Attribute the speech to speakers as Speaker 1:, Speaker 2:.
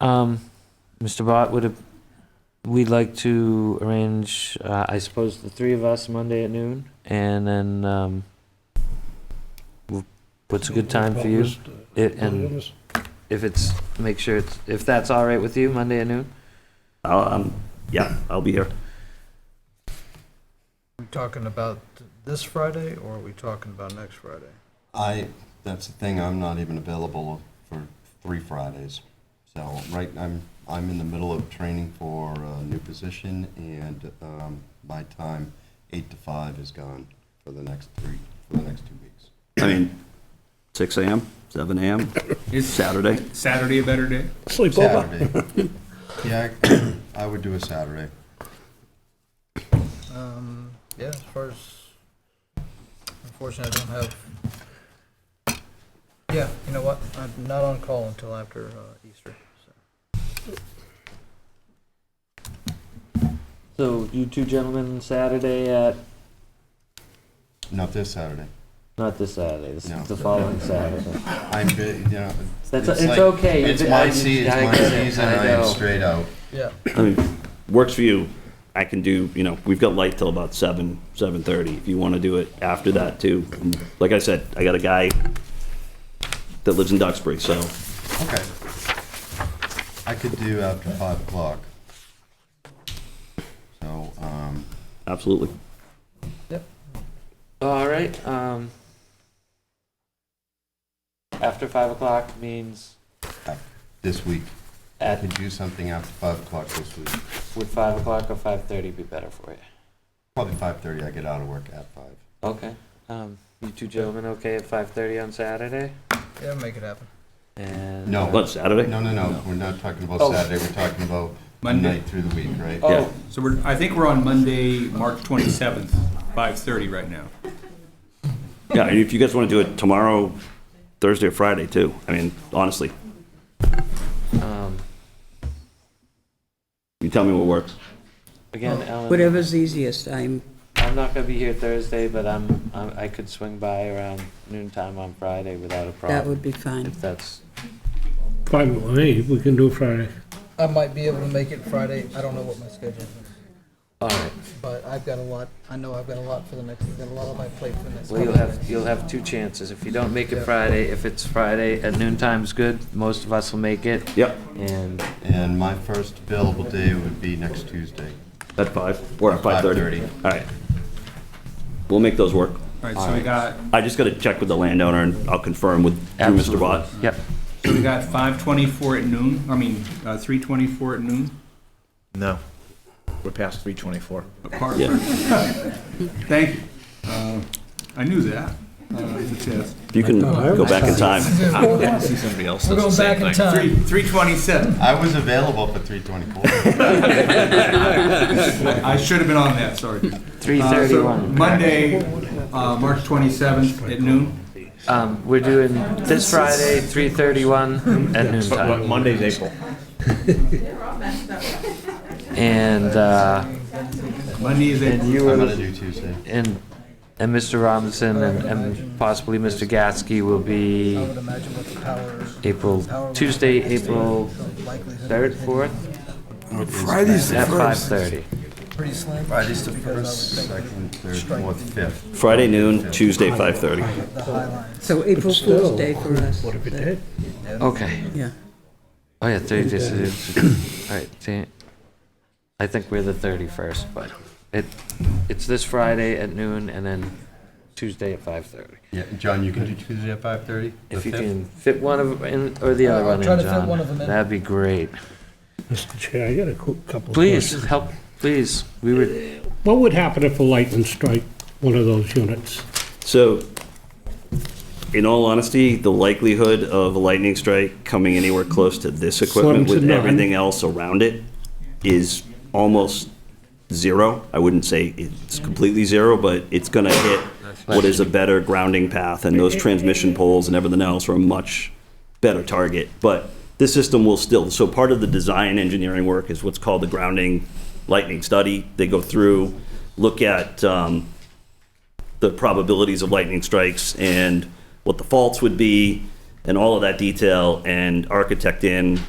Speaker 1: Um, Mr. Bott, would it, we'd like to arrange, uh, I suppose, the three of us Monday at noon, and then, um, we'll- what's a good time for you? It, and if it's, make sure it's, if that's all right with you, Monday at noon?
Speaker 2: I'll, um, yeah, I'll be here.
Speaker 3: Are we talking about this Friday or are we talking about next Friday?
Speaker 4: I, that's the thing, I'm not even available for three Fridays. So, right, I'm, I'm in the middle of training for a new position, and um, my time, eight to five, is gone for the next three, for the next two weeks.
Speaker 2: I mean, six AM, seven AM,
Speaker 5: Is
Speaker 2: Saturday.
Speaker 5: Saturday a better day?
Speaker 6: Sleep over.
Speaker 4: Saturday. Yeah, I- I would do a Saturday.
Speaker 3: Um, yeah, as far as, unfortunately, I don't have, yeah, you know what? I'm not on call until after uh, Easter, so.
Speaker 1: So you two gentlemen, Saturday at,
Speaker 4: Not this Saturday.
Speaker 1: not this Saturday, this
Speaker 4: No.
Speaker 1: is the following Saturday.
Speaker 4: I'm, bu- you know.
Speaker 1: That's,
Speaker 4: it's
Speaker 1: it's
Speaker 4: like-
Speaker 1: okay. you
Speaker 4: It's
Speaker 1: did- I-
Speaker 4: my season,
Speaker 1: I
Speaker 4: it's my
Speaker 1: get it,
Speaker 4: season,
Speaker 1: I
Speaker 4: I am
Speaker 1: know.
Speaker 4: straight out.
Speaker 3: Yeah,
Speaker 2: I mean, works for you. I can do, you know, we've got light till about seven, seven thirty. If you want to do it after that too. Like I said, I got a guy that lives in Duxbury, so
Speaker 4: Okay. I could do after five o'clock. So, um,
Speaker 2: absolutely.
Speaker 1: All right, um, after five o'clock means
Speaker 4: this week, I
Speaker 1: at
Speaker 4: could do something after five o'clock this week.
Speaker 1: Would five o'clock or five thirty be better for you?
Speaker 4: Probably five thirty, I get out of work at five.
Speaker 1: Okay. Um, you two gentlemen, okay at five thirty on Saturday?
Speaker 3: yeah, make it happen.
Speaker 1: And uh,
Speaker 4: No.
Speaker 2: What, Saturday?
Speaker 4: No, no, no, we're not talking about
Speaker 1: Oh.
Speaker 4: Saturday, we're talking about
Speaker 5: Monday.
Speaker 4: night through the week, right?
Speaker 1: Oh,
Speaker 5: So we're, I think we're on Monday, March 27th, 5:30 right now.
Speaker 2: Yeah, and if you guys want to do it tomorrow, Thursday or Friday too. I mean, honestly,
Speaker 1: um,
Speaker 2: you tell me what works.
Speaker 1: again, Ellen,
Speaker 7: Whatever's easiest, I'm,
Speaker 1: I'm not gonna be here Thursday, but I'm, I'm, I could swing by around noon time on Friday without a problem.
Speaker 7: that would be fine.
Speaker 1: If that's,
Speaker 6: Fine with me, we can do Friday.
Speaker 3: I might be able to make it Friday. I don't know what my schedule is,
Speaker 1: all right.
Speaker 3: but I've got a lot, I know I've got a lot for the next, I've got a lot on my plate for the next.
Speaker 1: Well, you'll
Speaker 3: couple of
Speaker 1: have,
Speaker 3: days.
Speaker 1: you'll have two chances. If you don't make it Friday, if it's Friday at noon time's good, most of us will make it.
Speaker 2: Yep,
Speaker 1: And
Speaker 4: Oh. And my first available day would be next Tuesday.
Speaker 2: at five, or at 5:30.
Speaker 4: 5:30.
Speaker 2: All right. We'll make those work.
Speaker 5: All right, so we got,
Speaker 2: I just got to check with the landowner and I'll confirm with through Mr. Bott.
Speaker 1: Yep.
Speaker 5: so we got 5:24 at noon, I mean, uh, 3:24 at noon.
Speaker 8: No, we're past 324.
Speaker 5: Apart-
Speaker 2: Yeah.
Speaker 5: Thank you. Uh, I knew that. Uh, it's a test.
Speaker 2: You can go back in time.
Speaker 8: I see somebody else
Speaker 3: We're
Speaker 8: does the
Speaker 3: going
Speaker 8: same
Speaker 3: back in
Speaker 8: thing.
Speaker 3: time.
Speaker 5: Three- 3:27.
Speaker 4: I was available for three twenty-four.
Speaker 5: I should have been on that, sorry.
Speaker 1: three
Speaker 5: Uh, so
Speaker 1: thirty-one.
Speaker 5: Monday, uh, March 27th at noon.
Speaker 1: Um, we're doing this Friday, three thirty-one at noon time.
Speaker 8: Monday's April.
Speaker 1: And, uh,
Speaker 5: Monday is
Speaker 1: and
Speaker 5: April.
Speaker 1: you
Speaker 4: I'm gonna
Speaker 1: were,
Speaker 4: do Tuesday.
Speaker 1: and, and Mr. Robinson and, and possibly Mr. Gatsky will
Speaker 3: I
Speaker 1: be
Speaker 3: would imagine what the power,
Speaker 1: April, Tuesday, April
Speaker 3: likelihood.
Speaker 1: third, fourth,
Speaker 8: Friday's
Speaker 1: at five thirty.
Speaker 3: Pretty slim.
Speaker 4: Friday's the
Speaker 3: because I would
Speaker 4: first,
Speaker 3: think
Speaker 4: second, third, fourth, fifth.
Speaker 2: Friday noon, Tuesday 5:30.
Speaker 3: The high line.
Speaker 7: So April Fool's Day for us.
Speaker 6: What if it
Speaker 7: but-
Speaker 6: did?
Speaker 1: Okay.
Speaker 7: Yeah.
Speaker 1: Oh, yeah, thirty days. is- All right, see, I think we're the thirty-first, but it, it's this Friday at noon and then Tuesday at five thirty.
Speaker 4: Yeah, John, you can do Tuesday at five thirty?
Speaker 1: If you can fit one of, in, or the other
Speaker 3: I'll
Speaker 1: one
Speaker 3: try
Speaker 1: in,
Speaker 3: to fit one of
Speaker 1: John,
Speaker 3: them in.
Speaker 1: that'd be great.
Speaker 6: Mr. Chair, I got a cou- couple of
Speaker 1: Please,
Speaker 6: questions.
Speaker 1: help, please, we were,
Speaker 6: What would happen if a lightning strike one of those units?
Speaker 2: So, in all honesty, the likelihood of a lightning strike coming anywhere close to this equipment
Speaker 6: Slim to
Speaker 2: with
Speaker 6: none.
Speaker 2: everything else around it is almost zero. I wouldn't say it's completely zero, but it's going to hit what is a better grounding path, and those transmission poles and everything else are a much better target. But this system will still, so part of the design engineering work is what's called the grounding lightning study. They go through, look at um, the probabilities of lightning strikes and what the faults would be, and all of that detail, and architect in